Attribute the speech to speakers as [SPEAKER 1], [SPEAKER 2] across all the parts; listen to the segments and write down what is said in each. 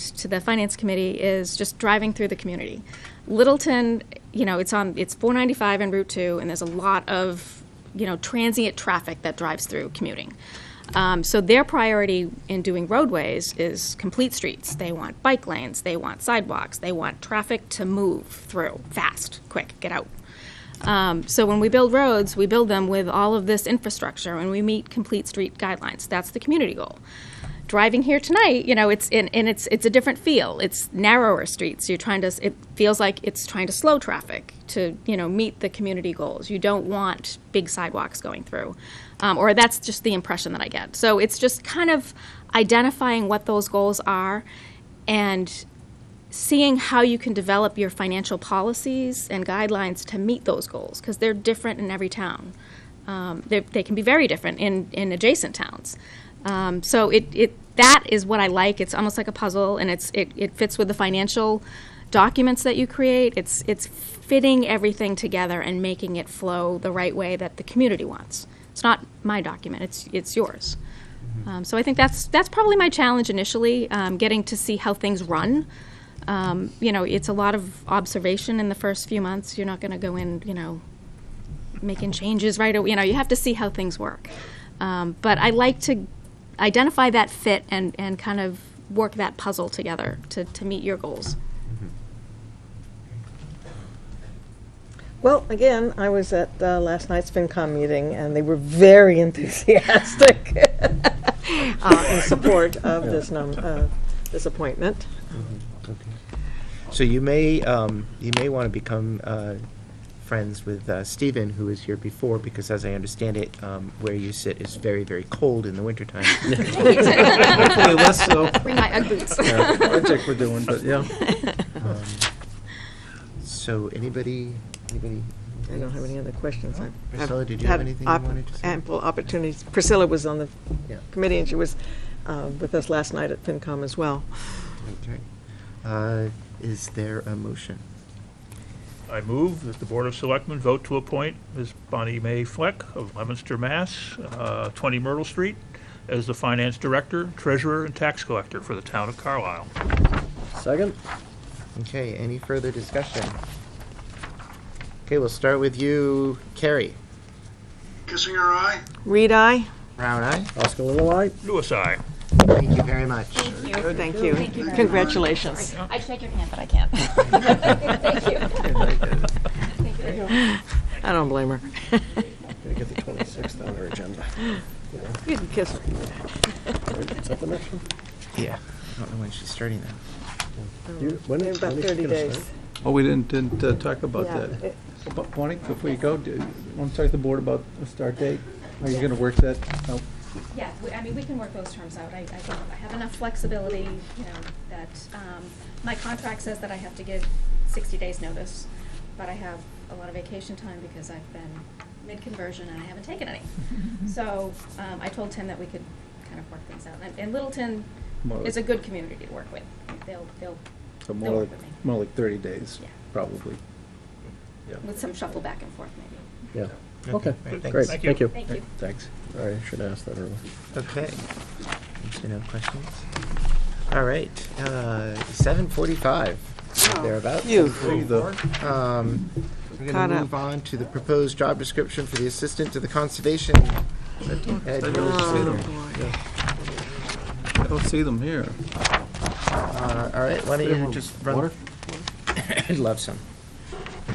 [SPEAKER 1] introduced to the finance committee is just driving through the community. Littleton, you know, it's on it's 495 and Route 2, and there's a lot of you know transient traffic that drives through commuting. Um, so their priority in doing roadways is complete streets. They want bike lanes, they want sidewalks, they want traffic to move through fast, quick, get out. Um, so when we build roads, we build them with all of this infrastructure, and we meet complete street guidelines. That's the community goal. Driving here tonight, you know, it's in, and it's it's a different feel. It's narrower streets. You're trying to. s- It feels like it's trying to slow traffic to you know meet the community goals. You don't want big sidewalks going through, um, or that's just the impression that I get. So it's just kind of identifying what those goals are, and seeing how you can develop your financial policies and guidelines to meet those goals because they're different in every town. Um, they, they can be very different in, in adjacent towns. Um, so it, it that is what I like. It's almost like a puzzle, and it's it, it fits with the financial documents that you create. It's it's fitting everything together and making it flow the right way that the community wants. It's not my document. It's it's yours. Um, so I think that's that's probably my challenge initially, um, getting to see how things run. Um, you know, it's a lot of observation in the first few months. You're not going to go in, you know, making changes right away. You know, you have to see how things work. Um, but I like to identify that fit and, and kind of work that puzzle together to, to meet your goals.
[SPEAKER 2] Mm-hmm.
[SPEAKER 3] Well, again, I was at uh, last night's FinCom meeting, and they were very enthusiastic uh, in support of this num, uh, this appointment.
[SPEAKER 2] Mm-hmm. So you may, um, you may want to become, uh, friends with, uh, Stephen, who was here before, because as I understand it, um, where you sit is very, very cold in the wintertime.
[SPEAKER 4] Hopefully less so.
[SPEAKER 1] Bring my Ugg boots.
[SPEAKER 4] Project we're doing, but yeah.
[SPEAKER 2] Um, So anybody, anybody?
[SPEAKER 3] I don't have any other questions. I've- I've
[SPEAKER 2] Priscilla, did you have
[SPEAKER 3] had
[SPEAKER 2] anything you
[SPEAKER 3] op-
[SPEAKER 2] wanted to say?
[SPEAKER 3] Ample opportunities. Priscilla was on the
[SPEAKER 2] Yeah.
[SPEAKER 3] committee, and she was uh, with us last night at FinCom as well.
[SPEAKER 2] Okay. Uh, is there a motion?
[SPEAKER 5] I move that the Board of Selectmen vote to appoint Ms. Bonnie Mae Fleck of Leominster, Mass., uh, 20 Myrtle Street, as the Finance Director, Treasurer, and Tax Collector for the Town of Carlisle.
[SPEAKER 4] Second?
[SPEAKER 2] Okay, any further discussion? Okay, we'll start with you, Carrie.
[SPEAKER 6] Kissing her eye?
[SPEAKER 3] Reed, I.
[SPEAKER 2] Brown eye?
[SPEAKER 4] Oscar Little Eye?
[SPEAKER 5] Louis, aye.
[SPEAKER 2] Thank you very much.
[SPEAKER 3] Thank you. Congratulations.
[SPEAKER 7] I'd shake your hand, but I can't. Thank you.
[SPEAKER 3] I don't blame her.
[SPEAKER 4] Gotta get the 26th on our agenda.
[SPEAKER 3] You can kiss her.
[SPEAKER 4] Is that the next one?
[SPEAKER 2] Yeah. I don't know when she's starting that.
[SPEAKER 4] You- when-
[SPEAKER 3] In about
[SPEAKER 4] when is she
[SPEAKER 3] 30
[SPEAKER 4] gonna
[SPEAKER 3] days.
[SPEAKER 4] start? Oh, we didn't, didn't uh, talk about
[SPEAKER 3] Yeah,
[SPEAKER 4] that.
[SPEAKER 3] it-
[SPEAKER 4] But Bonnie, before you go, do you want to talk to the board about a start date? Are you gonna work that out?
[SPEAKER 1] Yeah, we- I mean, we can work those terms out. I, I think I have enough flexibility, you know, that, um, my contract says that I have to give sixty days' notice, but I have a lot of vacation time because I've been mid-conversion and I haven't taken any.
[SPEAKER 4] Mm-hmm.
[SPEAKER 1] So, um, I told Tim that we could kind of work things out. And- And Littleton
[SPEAKER 4] More
[SPEAKER 1] is a
[SPEAKER 4] like-
[SPEAKER 1] good community to work with. They'll, they'll,
[SPEAKER 4] So
[SPEAKER 1] they'll
[SPEAKER 4] more
[SPEAKER 1] work with me,
[SPEAKER 4] like, more like 30 days,
[SPEAKER 1] Yeah.
[SPEAKER 4] probably.
[SPEAKER 1] with some shuffle back and forth maybe.
[SPEAKER 8] Yeah,
[SPEAKER 4] Okay,
[SPEAKER 2] Great, thanks.
[SPEAKER 8] great,
[SPEAKER 5] Thank
[SPEAKER 8] thank
[SPEAKER 5] you.
[SPEAKER 8] you.
[SPEAKER 1] Thank you.
[SPEAKER 4] thanks.
[SPEAKER 8] I should ask that earlier.
[SPEAKER 2] Okay. So no questions? All right, uh, seven forty-five,
[SPEAKER 3] Oh.
[SPEAKER 2] thereabouts.
[SPEAKER 3] Phew.
[SPEAKER 2] Oh,
[SPEAKER 4] Three, though.
[SPEAKER 2] Um, We're
[SPEAKER 3] Caught
[SPEAKER 2] going to
[SPEAKER 3] up.
[SPEAKER 2] move on to the proposed job description for the Assistant to the Conservation
[SPEAKER 4] Oh,
[SPEAKER 2] Administrator.
[SPEAKER 3] boy.
[SPEAKER 4] I don't see them here.
[SPEAKER 2] Uh, All right, why don't you just run?
[SPEAKER 4] Water?
[SPEAKER 2] I'd love some.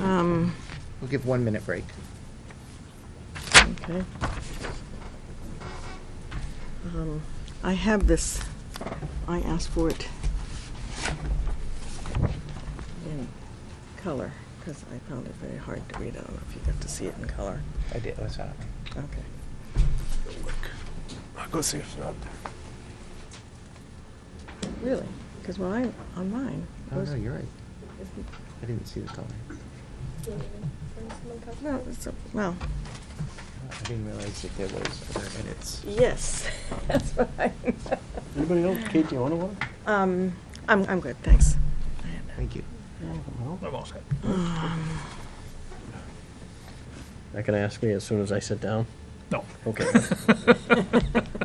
[SPEAKER 3] Um,
[SPEAKER 2] We'll give one minute break.
[SPEAKER 3] Okay. Um, I have this, I asked for it in color, because I found it very hard to read. I don't know if you got to see it in color.
[SPEAKER 2] I did, what's that?
[SPEAKER 3] Okay.
[SPEAKER 4] I'll go see if it's not there.
[SPEAKER 3] Really? Because when I, on mine, it
[SPEAKER 2] Oh,
[SPEAKER 3] was,
[SPEAKER 2] no, you're right. I didn't see the color.
[SPEAKER 3] no, it's, a- well,
[SPEAKER 2] I didn't realize that there was other minutes.
[SPEAKER 3] yes, that's what I,
[SPEAKER 4] Anybody else? Kate, do you want to one?
[SPEAKER 3] um, I'm, I'm good, thanks.
[SPEAKER 2] Thank you.
[SPEAKER 5] Oh, I'm all set.
[SPEAKER 8] Not gonna ask me as soon as I sit down?
[SPEAKER 5] No.
[SPEAKER 8] Okay.